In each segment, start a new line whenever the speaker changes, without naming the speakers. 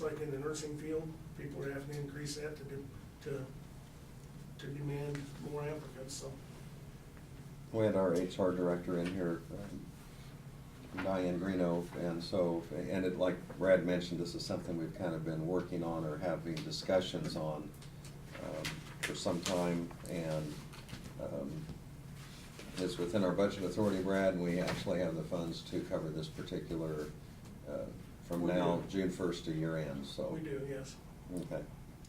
like in the nursing field, people are having to increase that to do, to, to demand more applicants, so.
We had our HR director in here, um, Diane Greeno, and so, and it, like Brad mentioned, this is something we've kind of been working on or having discussions on um, for some time, and um, it's within our budget authority, Brad, and we actually have the funds to cover this particular, uh, from
We
now,
do.
June first to year end, so.
We do, yes.
Okay.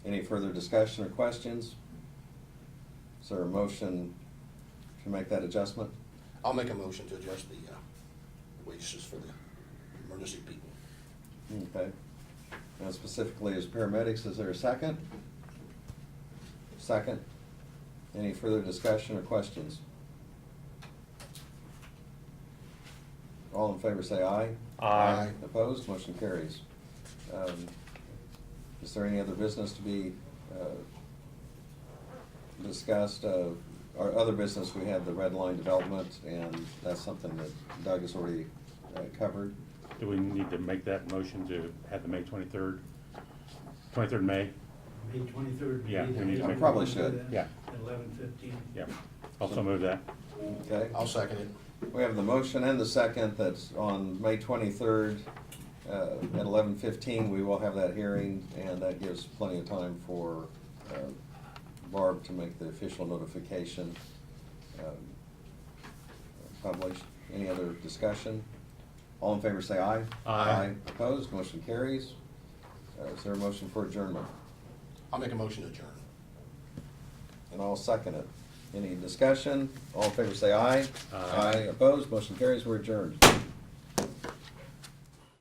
Any further discussion or questions? Is there a motion to make that adjustment?
I'll make a motion to adjust the uh, wages for the emergency people.
Okay. Now specifically as paramedics, is there a second? Second. Any further discussion or questions? All in favor say aye.
Aye.
Opposed, motion carries. Um, Is there any other business to be uh, discussed? Uh, Our other business, we had the red line development, and that's something that Doug has already uh, covered.
Do we need to make that motion to have the May twenty-third, twenty-third May?
May twenty-third.
Yeah, we need to make-
Probably should,
yeah.
Eleven fifteen.
Yeah, also move that.
Okay?
I'll second it.
We have the motion and the second that's on May twenty-third, uh, at eleven fifteen, we will have that hearing, and that gives plenty of time for, uh, Barb to make the official notification, um, published. Any other discussion? All in favor say aye.
Aye.
Opposed, motion carries. Uh, is there a motion for adjournment?
I'll make a motion to adjourn.
And I'll second it. Any discussion? All in favor say aye.
Aye.
Opposed, motion carries, we're adjourned.